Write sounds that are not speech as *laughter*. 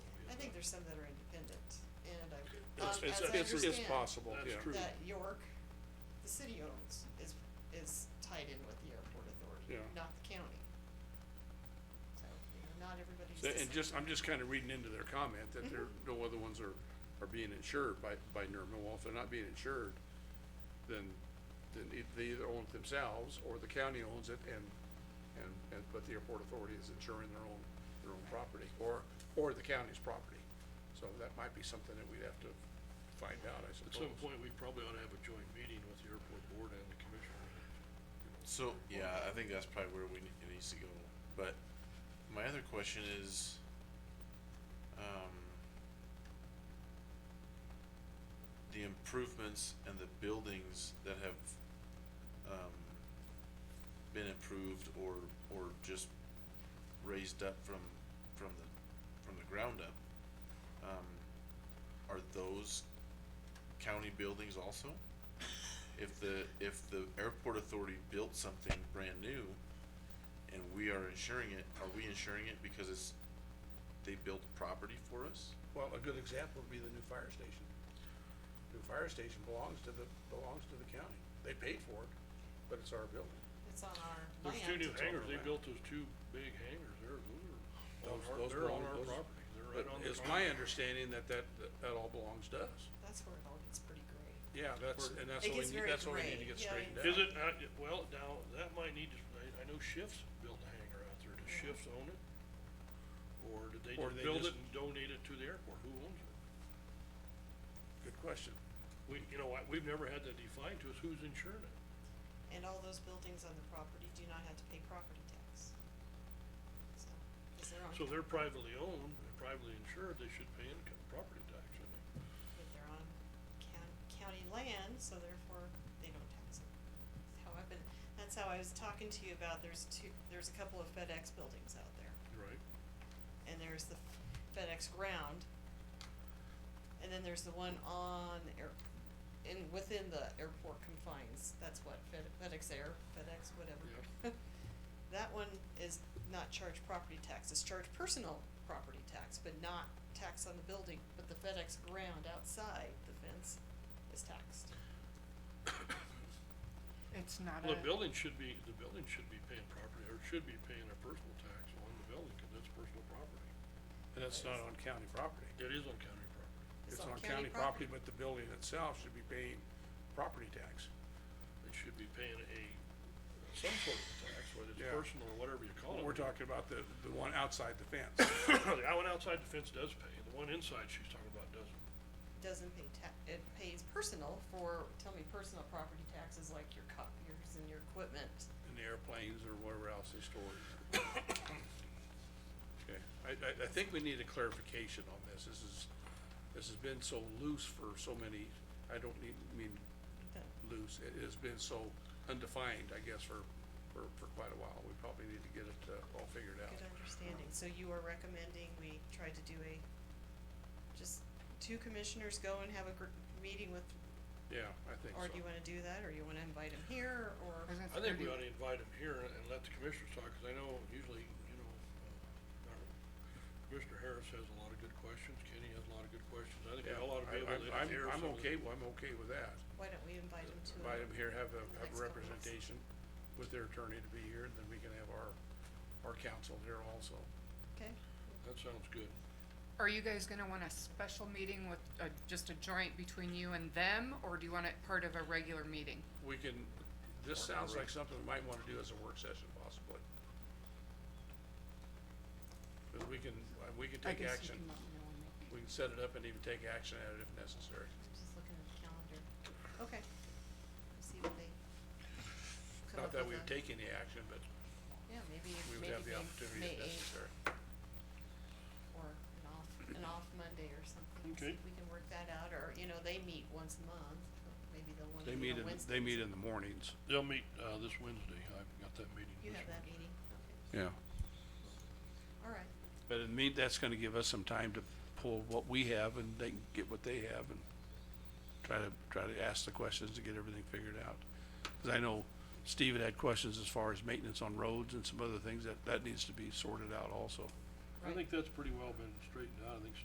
there's some that are independent, and I, It's, um, as it's, I it's, it's understand, possible, That's yeah. true. That York, the city owns, is, is tied in with the airport authority, Yeah. not the county. So, you know, not everybody's So, the same. And just, I'm just kinda reading into their comment that there, no other ones are, are being insured by, by NERMA. Well, if they're not being insured, then, then e- they either own it themselves or the county owns it and, and, and, but the airport authority is insuring their own, their own property or, or the county's property. So that might be something that we'd have to find out, I At suppose. some point, we probably ought to have a joint meeting with the airport board and the commissioner. So, yeah, I think that's probably where we need, it needs to go, but my other question is, um, the improvements and the buildings that have, um, been improved or, or just raised up from, from the, from the ground up, um, are those county buildings also? if the, if the airport authority built something brand new and we are insuring it, are we insuring it because it's, they built property for us? Well, a good example would be the new fire station. New fire station belongs to the, belongs to the county. They paid for it, but it's our building. It's on our land. There's two new It's hangars, over they land. built those two big hangars, they're, those are, on Those- our- those they're on belong- our those- property, they're right But on the property. it's my understanding that that, that all belongs to us. That's where it all gets pretty gray. Yeah, that's, Word. and that's It what we gets need, very that's what we need gray, to get yeah, straightened out. it's- Is it, uh, well, now, that might need to, I, I know Shifts built a hangar out there, does Shifts own it? Or did they Or just they build it just- and donate it to the airport, who owns it? Good question. We, you know, I, we've never had that defined to us, who's insuring it? And all those buildings on the property do not have to pay property tax. So, it's their own, So they're privately owned, and privately insured, they should pay income, property tax, shouldn't they? but they're on county, county land, so therefore they don't tax it. That's how I've been, that's how I was talking to you about, there's two, there's a couple of FedEx buildings out there. Right. And there's the FedEx ground. And then there's the one on air, in, within the airport confines, that's what, Fed, FedEx Air, FedEx, whatever. *laughs* That one is not charged property tax, it's charged personal property tax, but not tax on the building, but the FedEx ground outside the fence is taxed. It's not Well, a, The building should be, the building should be paying property, or should be paying a personal tax on the building, cause that's personal property. And it's not on county property. It is on county property. It's It's on on county county property, but the building itself should be paying property tax. They should be paying a, some sort of tax, whether it's Yeah. personal or whatever you call it. We're talking about the, the one outside the fence. *coughs* The one outside the fence does pay, the one inside she's talking about doesn't. Doesn't pay ta- it pays personal for, tell me, personal property taxes like your copiers and your equipment. and the airplanes or whatever else they stored. Okay, I, I, I think we need a clarification on this, this is, this has been so loose for so many, I don't need, mean loose, it has been so undefined, I guess, for, for, for quite a while, we probably need to get it, uh, all figured out. Good understanding, so you are recommending we try to do a, just two commissioners go and have a gr- meeting with, Yeah, I think so. or do you wanna do that, or you wanna invite them here, or? because it's I think we pretty- ought to invite them here and let the commissioners talk, cause I know usually, you know, uh, our- Commissioner Harris has a lot of good questions, Kenny has a lot of good questions, I think we Yeah, all ought to be I- able to I'm- hear I'm, I'm some of the- okay, well, I'm okay with that, Why don't we invite them to? invite them here, have a, the have next couple a of months. representation with their attorney to be here, and then we can have our, our counsel here also. Okay, That sounds good. Are you guys gonna want a special meeting with, uh, just a joint between you and them, or do you want it part of a regular meeting? we can, this sounds like something we might wanna do as a work session possibly. Cause we can, uh, we can I take guess you action, can let me know when they- we can set it up and even take action at it if necessary. I'm just looking at the calendar, okay, Let's see what they come Not up that we with would a- take any action, but Yeah, maybe, we would maybe have the they opportunity may if eight, necessary. or an off, an off Monday or something, so Okay. we can work that out, or, you know, they meet once a month, maybe they'll wanna They meet meet on in, Wednesdays. they meet in the mornings. They'll meet, uh, this Wednesday, I've got that meeting You this have that week. meeting, okay. Yeah. All right, But it mean, that's gonna give us some time to pull what we have and they can get what they have and try to, try to ask the questions to get everything figured out. Cause I know Steve had had questions as far as maintenance on roads and some other things that, that needs to be sorted out also. I think that's pretty well been straightened out, I think